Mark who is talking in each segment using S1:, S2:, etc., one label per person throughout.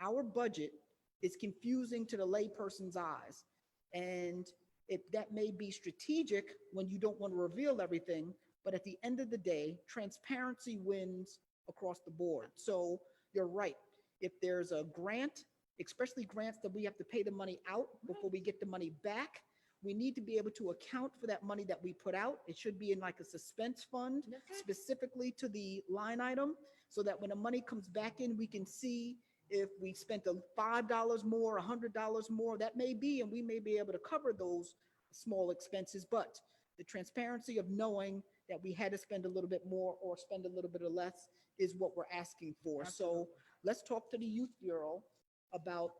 S1: our budget is confusing to the layperson's eyes. And if that may be strategic when you don't want to reveal everything, but at the end of the day, transparency wins across the board. So you're right. If there's a grant, especially grants that we have to pay the money out before we get the money back, we need to be able to account for that money that we put out. It should be in like a suspense fund specifically to the line item so that when the money comes back in, we can see if we spent a five dollars more, a hundred dollars more, that may be, and we may be able to cover those small expenses, but the transparency of knowing that we had to spend a little bit more or spend a little bit of less is what we're asking for. So let's talk to the youth bureau about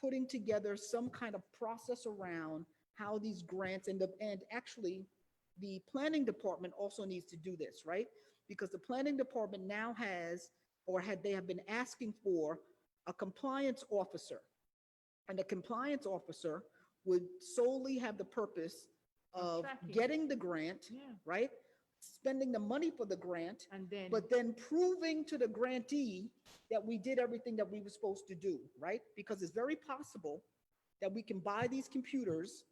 S1: putting together some kind of process around how these grants and the, and actually the planning department also needs to do this, right? Because the planning department now has, or had, they have been asking for a compliance officer. And the compliance officer would solely have the purpose of
S2: tracking.
S1: getting the grant,
S2: Yeah,
S1: right? Spending the money for the grant,
S2: and then.
S1: but then proving to the grantee that we did everything that we were supposed to do, right? Because it's very possible that we can buy these computers,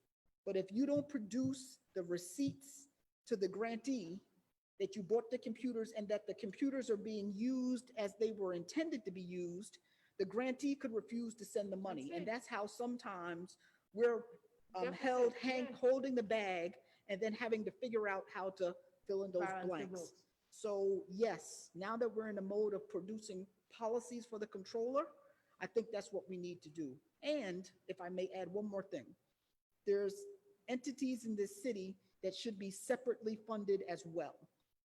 S1: but if you don't produce the receipts to the grantee that you bought the computers and that the computers are being used as they were intended to be used, the grantee could refuse to send the money.
S2: That's
S1: And
S2: it.
S1: that's how sometimes we're um,
S2: Deficit,
S1: held, hang,
S2: yeah.
S1: holding the bag and then having to figure out how to fill in those
S2: balance the
S1: blanks.
S2: books.
S1: So yes, now that we're in the mode of producing policies for the controller, I think that's what we need to do. And if I may add one more thing, there's entities in this city that should be separately funded as well.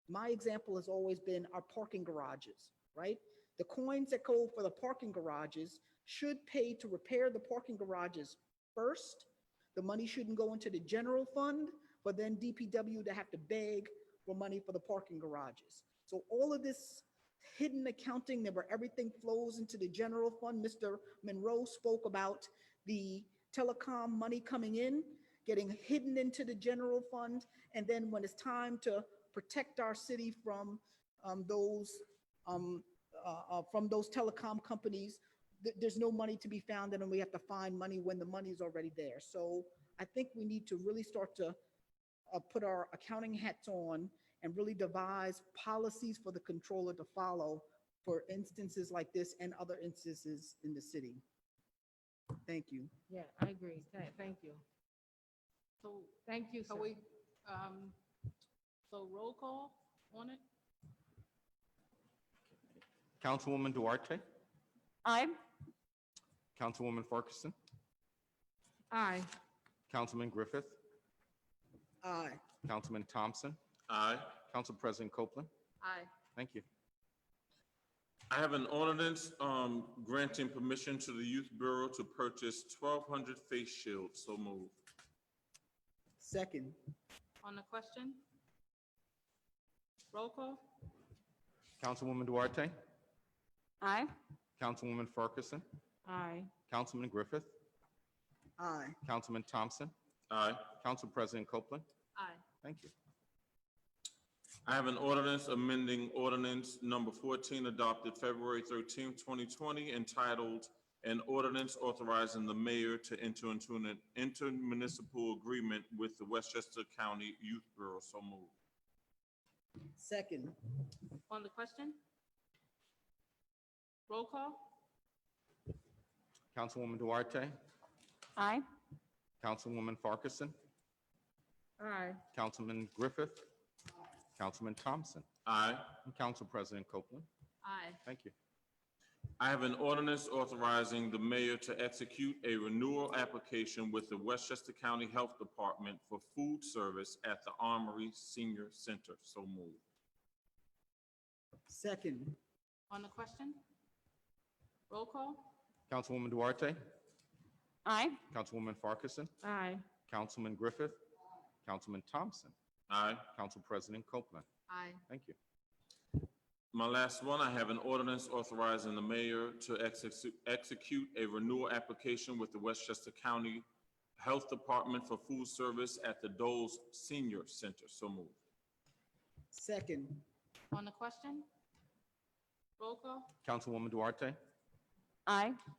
S1: My example has always been our parking garages, right? The coins that go for the parking garages should pay to repair the parking garages first. The money shouldn't go into the general fund, but then DPW to have to beg for money for the parking garages. So all of this hidden accounting, that where everything flows into the general fund, Mr. Monroe spoke about the telecom money coming in, getting hidden into the general fund, and then when it's time to protect our city from um, those, um, uh, uh, from those telecom companies, th- there's no money to be found, and then we have to find money when the money is already there. So I think we need to really start to uh, put our accounting hats on and really devise policies for the controller to follow for instances like this and other instances in the city. Thank you.
S2: Yeah, I agree. Thank, thank you.
S3: So
S2: Thank you, sir.
S3: can we, um, so roll call on it?
S4: Councilwoman Duarte,
S5: Aye.
S4: Councilwoman Farquharson,
S2: Aye.
S4: Councilman Griffith,
S1: Aye.
S4: Councilman Thompson,
S6: Aye.
S4: Council President Copeland.
S3: Aye.
S4: Thank you.
S6: I have an ordinance um, granting permission to the Youth Bureau to purchase 1,200 face shields. So moved.
S1: Second.
S3: On the question? Roll call?
S4: Councilwoman Duarte,
S5: Aye.
S4: Councilwoman Farquharson,
S2: Aye.
S4: Councilman Griffith,
S1: Aye.
S4: Councilman Thompson,
S6: Aye.
S4: Council President Copeland.
S3: Aye.
S4: Thank you.
S6: I have an ordinance amending ordinance number 14 adopted February 13, 2020, entitled An Ordinance Authorizing the Mayor to Enter into an Intermunicipal Agreement with the Westchester County Youth Bureau. So moved.
S1: Second.
S3: On the question? Roll call?
S4: Councilwoman Duarte,
S5: Aye.
S4: Councilwoman Farquharson,
S2: Aye.
S4: Councilman Griffith, Councilman Thompson,
S6: Aye.
S4: and Council President Copeland.
S3: Aye.
S4: Thank you.
S6: I have an ordinance authorizing the mayor to execute a renewal application with the Westchester County Health Department for food service at the Armory Senior Center. So moved.
S1: Second.
S3: On the question? Roll call?
S4: Councilwoman Duarte,
S5: Aye.
S4: Councilwoman Farquharson,
S2: Aye.
S4: Councilman Griffith, Councilman Thompson,
S6: Aye.
S4: Council President Copeland.
S3: Aye.
S4: Thank you.
S6: My last one, I have an ordinance authorizing the mayor to execu- execute a renewal application with the Westchester County Health Department for food service at the Doles Senior Center. So moved.
S1: Second.
S3: On the question? Roll call?
S4: Councilwoman Duarte,
S5: Aye.